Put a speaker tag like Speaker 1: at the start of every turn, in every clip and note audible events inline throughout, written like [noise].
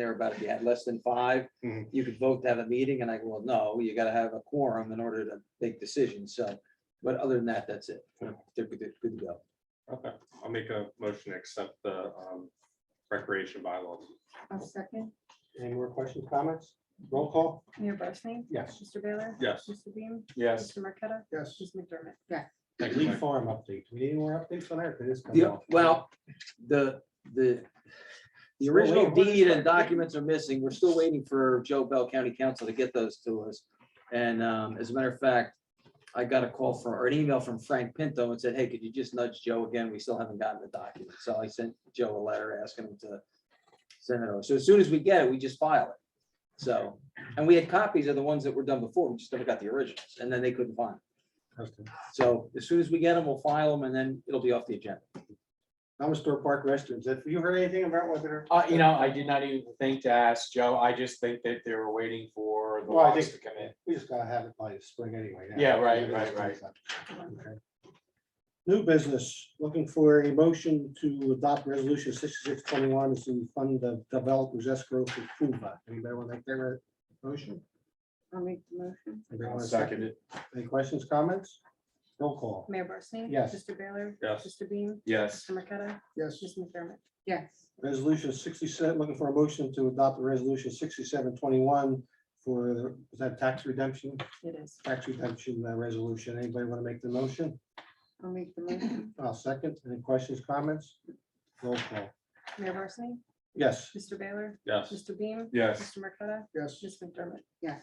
Speaker 1: there about if you had less than five,
Speaker 2: Mhm.
Speaker 1: you could vote to have a meeting, and I go, well, no, you gotta have a quorum in order to make decisions, so. But other than that, that's it. They're Good good to go.
Speaker 2: Okay, I'll make a motion to accept the um, recreation bylaws.
Speaker 3: I'll second.
Speaker 4: Any more questions, comments? Roll call?
Speaker 3: Mayor Barsney?
Speaker 4: Yes.
Speaker 3: Mr. Baylor?
Speaker 2: Yes.
Speaker 3: Mr. Beam?
Speaker 5: Yes.
Speaker 3: Mr. Marqueta?
Speaker 4: Yes.
Speaker 3: Ms. McDermott? Yes.
Speaker 2: Thank you,
Speaker 4: Lee
Speaker 2: Mike.
Speaker 4: Farm update. Do we need any more updates on that? Did this come
Speaker 1: The-
Speaker 4: out?
Speaker 1: Well, the, the, the original
Speaker 4: wait, what is
Speaker 1: deed and
Speaker 4: that?
Speaker 1: documents are missing. We're still waiting for Joe Bell County Council to get those to us. And um, as a matter of fact, I got a call from, or an email from Frank Pinto and said, hey, could you just nudge Joe again? We still haven't gotten the document. So I sent Joe a letter asking him to send it over. So as soon as we get it, we just file it. So, and we had copies of the ones that were done before. We just never got the originals and then they couldn't find. 'em.
Speaker 4: Okay.
Speaker 1: So as soon as we get them, we'll file them and then it'll be off the agenda.
Speaker 4: Dollar Park restrooms. Have you heard anything about whether?
Speaker 5: Uh, you know, I did not even think to ask Joe. I just think that they were waiting for the
Speaker 4: Well, I
Speaker 5: logs to
Speaker 4: think-
Speaker 5: come in.
Speaker 4: We just gotta have it by the spring anyway. now.
Speaker 5: Yeah, right, right, right.
Speaker 4: Okay. New business, looking for a motion to adopt resolution sixty-six twenty-one to fund the developers escrow for FUBA. Anybody want to make their motion?
Speaker 3: I'll make the motion.
Speaker 4: Anybody want to
Speaker 5: Second it.
Speaker 4: Any questions, comments? Roll call.
Speaker 3: Mayor Barsney?
Speaker 4: Yes.
Speaker 3: Mr. Baylor?
Speaker 2: Yes.
Speaker 3: Mr. Beam?
Speaker 5: Yes.
Speaker 3: Mr. Marqueta?
Speaker 4: Yes.
Speaker 3: Ms. McDermott? Yes.
Speaker 4: Resolution sixty-seven, looking for a motion to adopt the resolution sixty-seven twenty-one for, the- is that tax redemption,
Speaker 3: It is.
Speaker 4: tax redemption uh, resolution. Anybody want to make the motion?
Speaker 3: I'll make the [clears throat] motion.
Speaker 4: I'll second. Any questions, comments? Roll call.
Speaker 3: Mayor Barsney?
Speaker 4: Yes.
Speaker 3: Mr. Baylor?
Speaker 2: Yes,
Speaker 3: Mr. Beam?
Speaker 5: Yes.
Speaker 3: Mr. Marqueta?
Speaker 4: Yes.
Speaker 3: Ms. McDermott? Yes.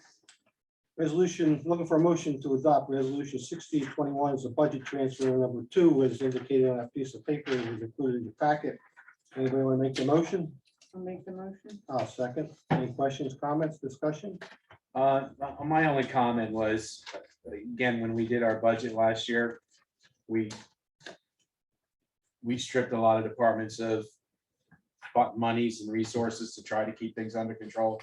Speaker 4: Resolution, looking for a motion to adopt resolution sixty twenty-one is a budget transfer number two, as indicated on that piece of paper that was included in your packet. Anybody want to make the motion?
Speaker 3: I'll make the motion.
Speaker 4: I'll second. Any questions, comments, discussion?
Speaker 5: Uh, my only comment was, again, when we did our budget last year, we we stripped a lot of departments of bu- monies and resources to try to keep things under control.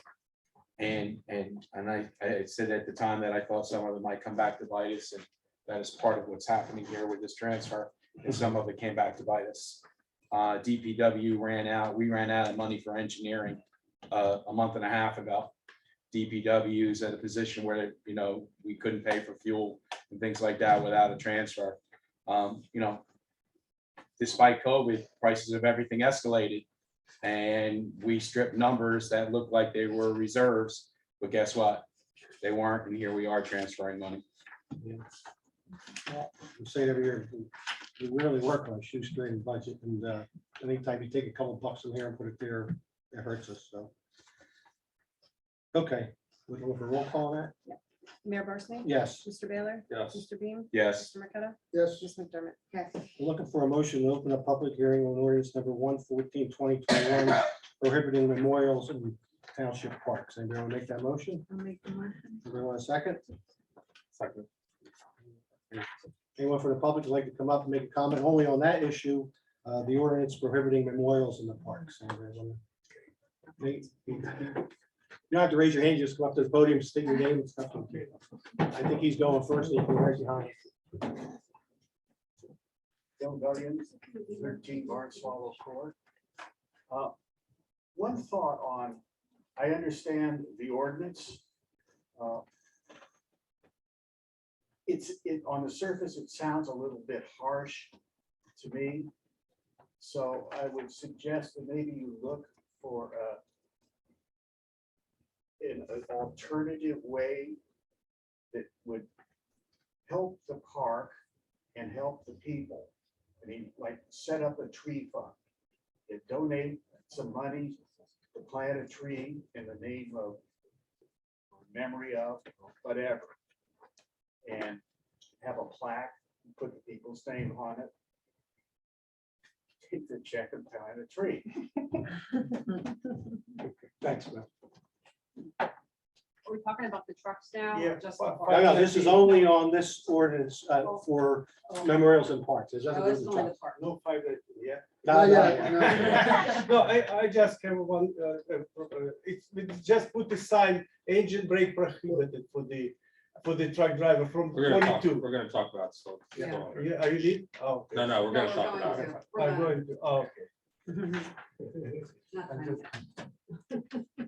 Speaker 5: And, and, and I, I said at the time that I thought some of it might come back to bite us, and that is part of what's happening here with this transfer, and some of it came back to bite us. Uh, DPW ran out, we ran out of money for engineering, uh, a month and a half ago. DPW is at a position where, you know, we couldn't pay for fuel and things like that without a transfer. Um, you know, despite COVID, prices of everything escalated. And we stripped numbers that looked like they were reserves, but guess what? They weren't, and here we are transferring money.
Speaker 4: We say it every year, we really work on a shoestring budget, and uh, anytime you take a couple bucks from here and put it there, it hurts us, so. Okay, we can look for roll call on
Speaker 3: Mayor Barsney?
Speaker 4: that? Yes.
Speaker 3: Mr. Baylor?
Speaker 2: yes,
Speaker 3: Mr. Beam?
Speaker 5: Yes,
Speaker 3: Mr. Marqueta?
Speaker 4: Yes.
Speaker 3: Ms. McDermott? Yes.
Speaker 4: We're Looking for a motion to open a public hearing on ordinance number 114 2021 prohibiting memorials in township parks. Anybody want to make that motion?
Speaker 3: I'll make the motion.
Speaker 4: Everyone want a second?
Speaker 2: Second.
Speaker 4: Anyone from the public would like to come up and make a comment only on that issue, uh, the ordinance prohibiting memorials in the parks. Anybody wanna- Nate, You you don't have to raise your hand, just go up to the podium, state your name and stuff. I think he's going first. and you can raise your hand.
Speaker 6: Bill Williams, thirteen Barn Swallow Court. Uh, One thought on, I understand the ordinance. uh, It's, it, on the surface, it sounds a little bit harsh to me. So I would suggest that maybe you look for a an alternative way that would help the park and help the people. I mean, like, set up a tree fund. and donate some money to plant a tree in the name of, or memory of, or whatever. And have a plaque, put the people's name on it. Take the check and plant a tree.
Speaker 4: Thanks, Bill.
Speaker 7: Are we talking about the trucks now? or
Speaker 6: Yeah,
Speaker 7: just the
Speaker 6: but-
Speaker 7: park?
Speaker 4: No, no, this is only on this ordinance uh, for memorials and parks. There's nothing
Speaker 7: Oh,
Speaker 4: to
Speaker 7: it's
Speaker 4: do
Speaker 7: only
Speaker 4: with
Speaker 7: the park.
Speaker 6: No, five, yeah.
Speaker 4: No,
Speaker 1: yeah,
Speaker 8: [laughs]
Speaker 4: no,
Speaker 8: No, I, I just have one, uh, uh, uh, it's, we just put the sign, engine brake prohibited for the, for the truck driver from
Speaker 2: we're gonna talk,
Speaker 8: forty-two.
Speaker 2: we're gonna talk about. so-
Speaker 7: Yeah.
Speaker 2: No,
Speaker 8: Yeah, Are you leave? Oh. okay.
Speaker 2: no, we're
Speaker 7: No,
Speaker 2: gonna
Speaker 7: we're
Speaker 2: talk
Speaker 7: going
Speaker 2: about
Speaker 7: to.
Speaker 2: it.
Speaker 7: We're
Speaker 8: I'm
Speaker 7: not.
Speaker 8: going to, oh, okay.
Speaker 1: Not
Speaker 3: I'm
Speaker 1: fine.
Speaker 3: just-